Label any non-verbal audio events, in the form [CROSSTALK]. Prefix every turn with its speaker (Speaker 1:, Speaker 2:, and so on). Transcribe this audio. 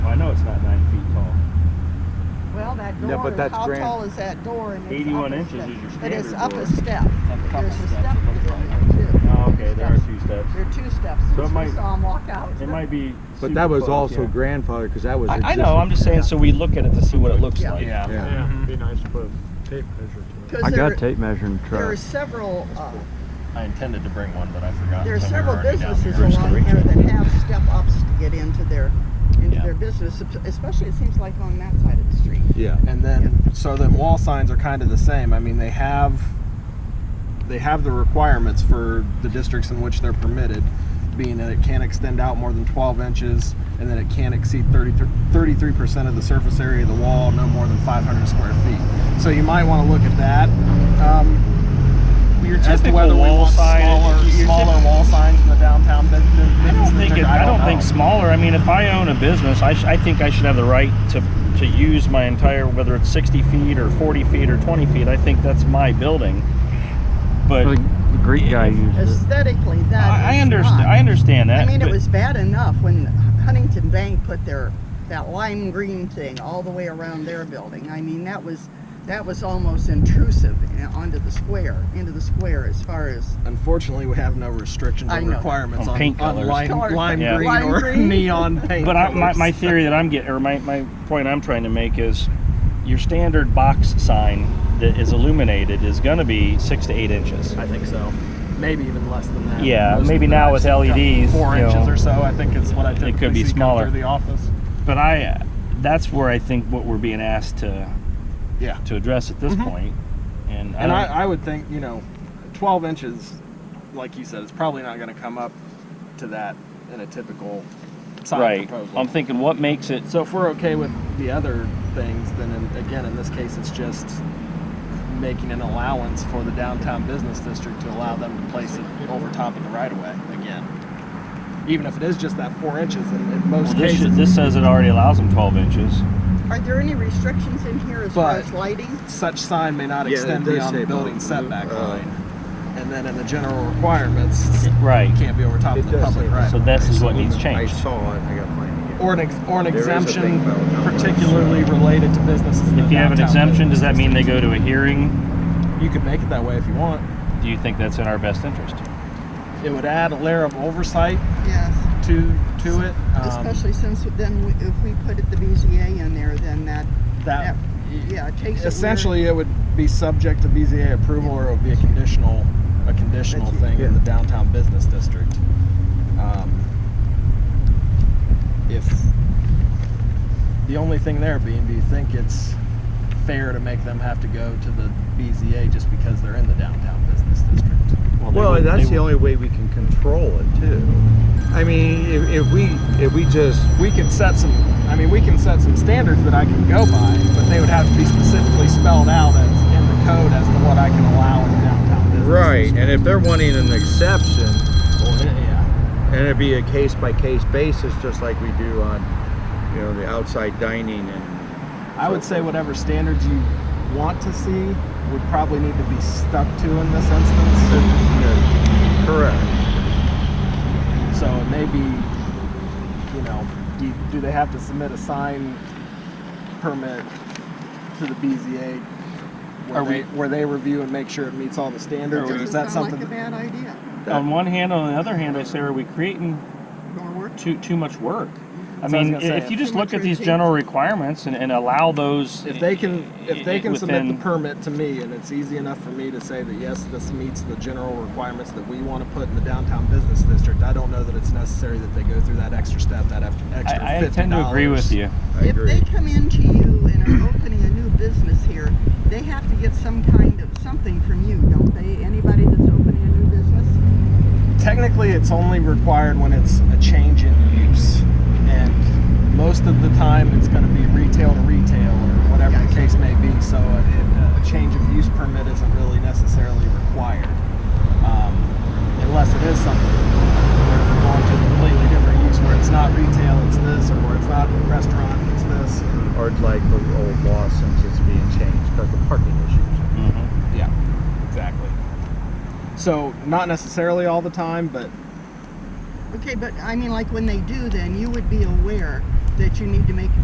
Speaker 1: Oh,
Speaker 2: my
Speaker 3: Yeah, but
Speaker 2: daughter,
Speaker 3: that's
Speaker 2: how
Speaker 3: grand.
Speaker 2: tall is that door? And it's up
Speaker 1: 81
Speaker 2: a
Speaker 1: inches
Speaker 2: step.
Speaker 1: is your
Speaker 2: But it's
Speaker 1: standard
Speaker 2: up
Speaker 1: door.
Speaker 2: a step.
Speaker 4: a couple
Speaker 2: There's a
Speaker 4: steps, it
Speaker 2: step
Speaker 4: looks
Speaker 2: to get
Speaker 4: like.
Speaker 2: in there too.
Speaker 1: Oh, okay, there are
Speaker 2: Steps.
Speaker 1: two steps.
Speaker 2: There are two steps.
Speaker 1: So it
Speaker 2: and
Speaker 1: might-
Speaker 2: she saw him walk out.
Speaker 1: It might be.
Speaker 3: But that was
Speaker 1: super close,
Speaker 3: also
Speaker 1: yeah.
Speaker 3: grandfather because that was.
Speaker 4: I, I know, I'm just saying, so we look at it to see what it looks
Speaker 2: Yeah.
Speaker 4: like.
Speaker 1: Yeah.
Speaker 3: Yeah.
Speaker 5: Yeah, it'd be nice to put a tape measure to it.
Speaker 2: Because there,
Speaker 3: tape measuring
Speaker 2: there are several, uh,
Speaker 6: I intended to bring one, but I forgot.
Speaker 2: there are
Speaker 6: so we were
Speaker 2: several
Speaker 6: already down
Speaker 2: businesses
Speaker 6: here.
Speaker 2: along here that have step ups to get into their, into
Speaker 4: Yeah.
Speaker 2: their business, especially it seems like on that side of the street.
Speaker 3: Yeah.
Speaker 7: and then so the wall signs are kind of the same. I mean, they have they have the requirements for the districts in which they're permitted, being that it can't extend out more than 12 inches, and that it can't exceed 33 percent of the surface area of the wall, no more than 500 square feet. So you might want to look at that. Um,
Speaker 4: Your
Speaker 7: as to
Speaker 4: typical
Speaker 7: whether we
Speaker 4: wall
Speaker 7: want
Speaker 4: sign-
Speaker 7: smaller,
Speaker 4: your
Speaker 7: smaller
Speaker 4: typ-
Speaker 7: wall signs in the downtown bu- bu- business
Speaker 4: I don't think
Speaker 7: district,
Speaker 4: it, I don't think
Speaker 7: know.
Speaker 4: smaller. I mean, if I own a business, I, sh- I think I should have the right to to use my entire whether it's 60 feet or 40 feet or 20 feet. I think that's my building. But
Speaker 8: the Greek guy used it.
Speaker 2: Aesthetically, that
Speaker 4: I, I
Speaker 2: is
Speaker 4: understand.
Speaker 2: not.
Speaker 4: I understand that.
Speaker 2: I mean, it
Speaker 4: but
Speaker 2: was bad enough when Huntington Bank put their, that lime green thing all the way around their building. I mean, that was, that was almost intrusive in- onto the square, into the square as far as,
Speaker 7: Unfortunately, we have no restrictions
Speaker 2: I
Speaker 7: or
Speaker 2: know.
Speaker 7: requirements
Speaker 4: On
Speaker 7: on,
Speaker 4: paint
Speaker 7: on
Speaker 4: Oh, colors.
Speaker 7: lime,
Speaker 2: Color-
Speaker 7: lime
Speaker 4: Yeah.
Speaker 7: green
Speaker 2: Lime
Speaker 7: or
Speaker 2: green.
Speaker 7: [LAUGHS] neon paint.
Speaker 4: But I, my,
Speaker 7: colors.
Speaker 4: my theory that I'm getting, or my, my point I'm trying to make is your standard box sign that is illuminated is going to be six to eight inches.
Speaker 7: I think so. Maybe even less than that.
Speaker 4: Yeah,
Speaker 7: Most
Speaker 4: maybe
Speaker 7: of them
Speaker 4: now
Speaker 7: I've
Speaker 4: with
Speaker 7: seen come
Speaker 4: LEDs,
Speaker 7: Four
Speaker 4: you
Speaker 7: inches
Speaker 4: know,
Speaker 7: or so, I think is what I typically
Speaker 4: could be
Speaker 7: see come
Speaker 4: smaller.
Speaker 7: through the office.
Speaker 4: But I, that's where I think what we're being asked to,
Speaker 7: Yeah.
Speaker 4: to address at this
Speaker 7: Mhm.
Speaker 4: point. And,
Speaker 7: And
Speaker 4: I, don't-
Speaker 7: I, I would think, you know, 12 inches, like you said, is probably not going to come up to that in a typical sign
Speaker 4: right,
Speaker 7: proposal.
Speaker 4: I'm thinking what makes it
Speaker 7: so if we're okay with the other things, then in, again, in this case, it's just making an allowance for the downtown business district to allow them to place it over top of the right of way again. Even if it is just that four inches, in, in most
Speaker 4: Well, this,
Speaker 7: cases,
Speaker 4: should- this says it already allows them 12 inches.
Speaker 2: are there any restrictions in here as far
Speaker 7: But-
Speaker 2: as lighting?
Speaker 7: such sign may not
Speaker 3: Yeah, it
Speaker 7: extend
Speaker 3: does
Speaker 7: beyond
Speaker 3: say
Speaker 7: the building
Speaker 3: both.
Speaker 7: setback
Speaker 3: Uh,
Speaker 7: line. And then in the general requirements, it
Speaker 4: Right.
Speaker 7: can't be over top
Speaker 3: It
Speaker 7: of the
Speaker 3: does
Speaker 7: public
Speaker 3: say
Speaker 7: right.
Speaker 4: So
Speaker 7: of
Speaker 4: this
Speaker 7: way.
Speaker 4: is what needs
Speaker 3: I
Speaker 4: changed.
Speaker 3: saw it. I got mine again.
Speaker 7: Or an, ex- or an
Speaker 3: There is a thing
Speaker 7: exemption
Speaker 3: about numbers.
Speaker 7: particularly related to businesses. in the
Speaker 4: If you have an
Speaker 7: downtown
Speaker 4: exemption, does that
Speaker 7: business
Speaker 4: mean they go to a hearing?
Speaker 7: district. You could make it that way if you want.
Speaker 4: Do you think that's in our best interest?
Speaker 7: It would add a layer of oversight
Speaker 2: Yes,
Speaker 7: to, to it. um,
Speaker 2: especially since then, we- if we put it- the BZA in there, then that,
Speaker 7: That,
Speaker 2: yeah, it takes it where-
Speaker 7: essentially, it would be subject to BZA approval or it would be a conditional, a conditional thing in the downtown business district. Um, If, the only thing there being, do you think it's fair to make them have to go to the BZA just because they're in the downtown business district?
Speaker 4: they
Speaker 3: Well,
Speaker 4: would-
Speaker 3: that's
Speaker 4: they
Speaker 3: the only way we can control it too. I mean, if, if we if we just
Speaker 7: we can set some i mean we can set some standards that i can go by but they would have to be specifically spelled out as in the code as to what i can allow in the downtown business
Speaker 3: right,
Speaker 7: district.
Speaker 3: and if they're wanting an exception,
Speaker 7: Well, yeah
Speaker 3: and it'd be a case by case basis, just like we do on, you know, the outside dining and
Speaker 7: i would say whatever standards you want to see would probably need to be stuck to in this instance
Speaker 3: you know, correct.
Speaker 7: so it may be you know do, you- do they have to submit a sign permit to the bza where,
Speaker 4: Are
Speaker 7: they,
Speaker 4: we-
Speaker 7: where they review and make sure it meets all the standards or
Speaker 2: Doesn't
Speaker 7: is that
Speaker 2: sound
Speaker 7: something
Speaker 2: like a bad idea,
Speaker 4: on one hand, on the other hand, I say, are we creating
Speaker 2: nor work.
Speaker 4: too too much work? I
Speaker 7: So I was
Speaker 4: mean,
Speaker 7: gonna say,
Speaker 4: if you
Speaker 2: Too
Speaker 4: just
Speaker 2: much
Speaker 4: look at these
Speaker 2: routine.
Speaker 4: general requirements and, and allow those,
Speaker 7: If they can, if they can submit the
Speaker 4: within-
Speaker 7: permit to me and it's easy enough for me to say that, yes, this meets the general requirements that we want to put in the downtown business district, I don't know that it's necessary that they go through that extra step, that eff-
Speaker 4: I,
Speaker 7: extra
Speaker 4: I
Speaker 7: fifty dollars.
Speaker 4: tend to agree with you.
Speaker 3: I
Speaker 2: If
Speaker 3: agree.
Speaker 2: they come into you and are opening a new business here, they have to get some kind of something from you, don't they? Anybody that's opening a new business?
Speaker 7: Technically, it's only required when it's a change in use. And most of the time, it's gonna be retail to retail or whatever the case may be, so a, a change of use permit isn't really necessarily required. Um, Unless it is something where we're going to a completely different use where it's not retail, it's this, or where it's not a restaurant, it's this.
Speaker 3: Or it's like the old law since it's being changed, but the parking issues.
Speaker 4: Mhm.
Speaker 7: Yeah, exactly. So, not necessarily all the time, but
Speaker 2: Okay, but I mean, like when they do, then you would be aware that you need to make a